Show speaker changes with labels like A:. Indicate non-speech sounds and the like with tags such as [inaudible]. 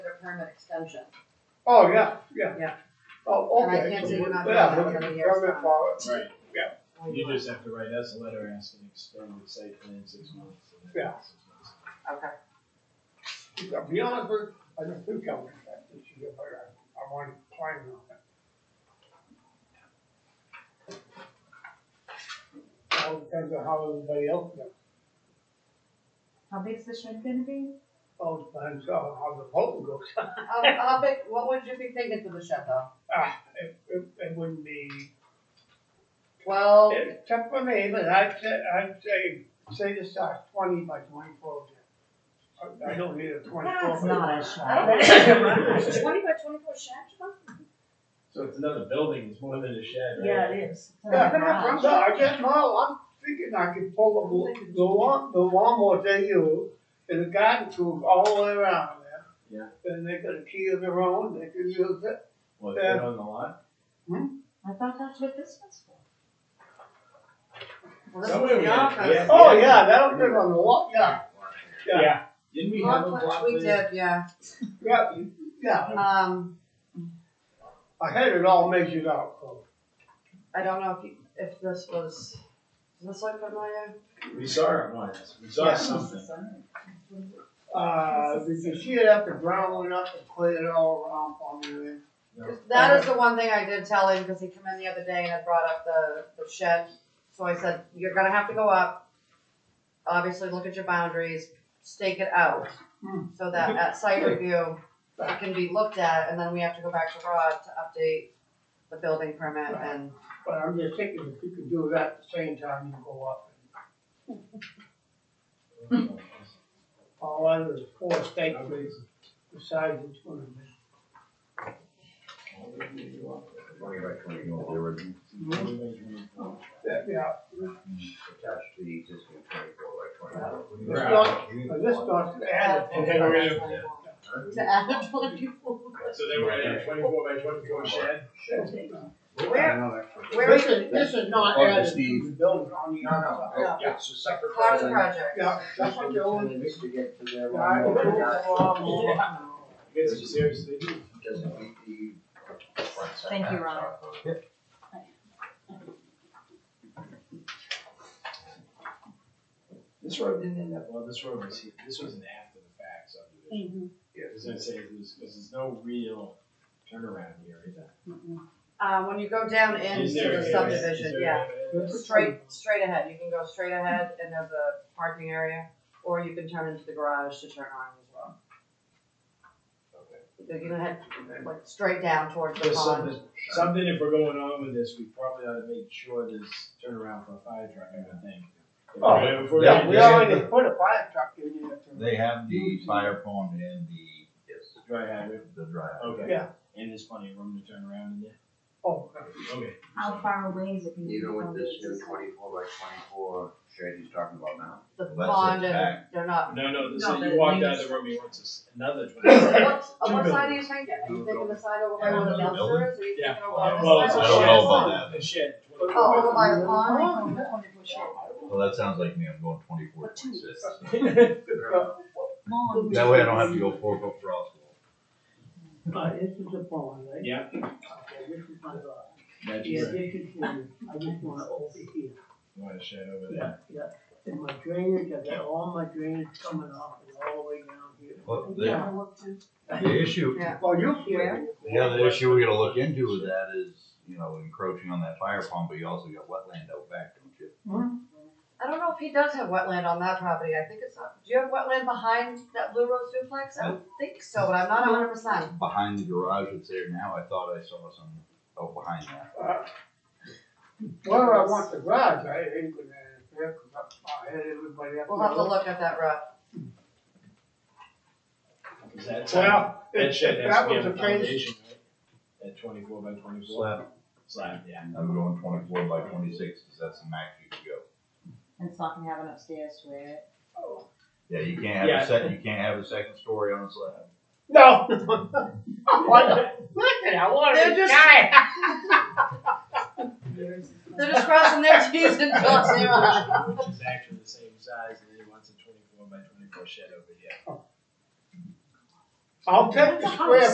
A: permit extension.
B: Oh, yeah, yeah.
A: Yeah.
B: Oh,
A: And I
B: okay.
A: can't say we're not doing
B: Yeah,
A: that
B: we
A: every
B: can
A: year,
B: come
A: so.
B: in for it.
C: Right, you
A: Okay,
C: just have to write us a letter asking extended site plan six months. and then
B: Yeah.
C: six months.
B: To be honest with, I don't think I'll get that this year, but I, I'm already planning on it. All depends on how everybody else does.
D: How big's the shed gonna be?
B: All depends on how the vote goes.
A: [laughs] how, how big, what would you be thinking for the shed though?
B: Ah, it, it, it wouldn't be
A: Twelve,
B: It's tough for me, but I'd say, I'd say, say the size twenty by twenty-four. I- I don't need a twenty-four.
D: That's not a
A: I
D: shed.
A: don't [laughs] know, twenty by twenty-four shed, you know?
C: So it's another building, it's more than a shed, right?
D: Yeah, it is. It's in the
B: Yeah,
D: garage.
B: I'm sorry, I just, no, I'm thinking I could pull the, the lawn, the lawnmower they use, and the garden tools all the way around there.
C: Yeah.
B: Then they got a key of their own, they can use it.
C: Well, it's been on the lot.
D: I thought that's what this was for.
A: Well, this
C: Somewhere
A: was
C: we
A: the
C: had-
A: office.
B: Oh, yeah, that'll fit on the lot, yeah, Yeah.
C: Didn't we have a
A: Lot
C: block
A: plan, We
C: plan?
A: did, yeah,
B: yeah, you- yeah,
A: um,
B: I had it all measured out, so.
A: I don't know if you, if this was, does this look familiar?
C: We saw it once, we saw
B: Yeah.
A: [laughs]
C: something.
B: Uh, you can see it after brown it up and cleared it all around for me then.
C: No.
A: That is the one thing I did tell him, cause he came in the other day and had brought up the, the shed, so I said, you're gonna have to go up. Obviously, look at your boundaries, stake it out,
B: Hmm.
A: so
C: [laughs]
A: that at site review, it can be looked at, and then we have to go back to Rod to update the building permit and.
B: But I'm just thinking if you could do that at the same time you go up. All under the four state trees, besides each one of them.
E: Twenty by twenty, you want the original,
B: Yeah, yeah,
E: attached to the existing twenty-four by twenty-four.
B: this doc, but this doc's added. to
C: Okay, we're gonna-
A: To add a twenty-four.
C: So they were at a twenty-four by twenty-four shed?
A: Where- where
B: This is, this is not
E: Oh,
B: added to
E: Steve.
B: the building on the outside.
A: No.
E: Yeah, it's a separate.
A: Part of the project.
B: Yeah, that's what the old.
E: To get to their.
B: guy with the lawnmower.
C: You guys are seriously, do?
E: Doesn't meet the. front
D: Thank you,
E: setback,
D: Ron.
E: so.
C: this road didn't end up, well, this road was, here. this was an after the fact subdivision.
D: Mm.
E: Yeah,
C: I was gonna say, there's, cause there's no real turnaround here either.
A: Uh, when you go down into
C: Is there-
A: the
C: is there- is
A: subdivision,
C: there
A: yeah,
C: evidence?
A: straight, straight ahead, you can go straight ahead and there's a parking area, or you can turn into the garage to turn on as well. You can head, like, straight down towards the
C: There's
A: pond.
C: something, something if we're going on with this, we probably ought to make sure there's turnaround for a fire truck, I would think. If
B: Oh,
C: we're- if we're
B: Yeah,
C: gonna
B: we
C: do
B: already
C: it,
B: put a fire truck in here.
F: They have the fire pond and the,
E: Yes.
C: Dry hydrant,
F: the dry.
C: okay.
B: Yeah.
C: And there's plenty of room to turn around in there,
B: Oh,
C: okay.
D: How far away is it gonna be?
E: Even
D: from
E: with this new
D: the-
E: twenty-four by twenty-four shed he's talking about now,
A: The
F: Well, that's
A: pond and
F: intact.
A: they're not.
C: No, no,
A: No,
C: so
A: but
C: you walked
A: they-
C: out of the room, he wants us another twenty. [laughs]
A: What, on
C: Two
A: what side are you
C: buildings.
A: thinking? Are you thinking the side over by where the
F: Another building?
A: dumpster is, or are you
C: Yeah.
A: thinking over on this side?
C: Well, it's
F: I
C: a
F: don't
C: shed.
F: know about
C: A
F: that,
C: shed.
A: Oh, over
C: [laughs]
A: by the pond?
F: well, that sounds like me, I'm going twenty-four, twenty-six.
B: okay.
D: Lawn.
F: That way I don't have to go four foot frost wall.
B: Uh, this is a pond, right?
C: Yeah.
B: Okay, This is my garage.
C: That's
B: Yeah,
C: right.
B: this is here, I just want it over here.
C: You want a shed over
B: Yeah,
C: there?
B: yeah, and my drainage, I got all my drainage coming off and all the way down here.
F: But the, the issue,
A: Yeah.
B: Well, Oh, you
A: Yeah.
B: can.
F: the other issue we gotta look into with that is, you know, encroaching on that fire pond, but you also got wetland out back, don't you?
A: I don't know if he does have wetland on that property, I think it's, not- do you have wetland behind that Blue Rose duplex? I don't think so, but I'm not hundred percent.
F: Behind the garage that's there now, I thought I saw some out behind that.
B: Where I want the garage, I ain't gonna, have to up, I had everybody up.
A: We'll have to look at that rough.
C: Is that side?
B: Well,
C: That
B: if,
C: shed
B: if
C: has
B: that
C: to be
B: was
C: on
B: a
C: the
B: case,
C: foundation, right? At twenty-four by twenty-four,
F: Slab,
C: slab, yeah.
F: I'm going twenty-four by twenty-six, cause that's the max you can go.
D: And it's not gonna have an upstairs to it.
F: Yeah, you can't have
C: Yeah.
F: a second, you can't have a second story on a slab.
B: no. [laughs] What the, listen, I wanna
A: They're just-
B: retire.
A: They're just crossing their T's and crossing their I's.
C: Which is actually the same size, and then he wants a twenty-four by twenty-four shed over here.
B: I'll take the square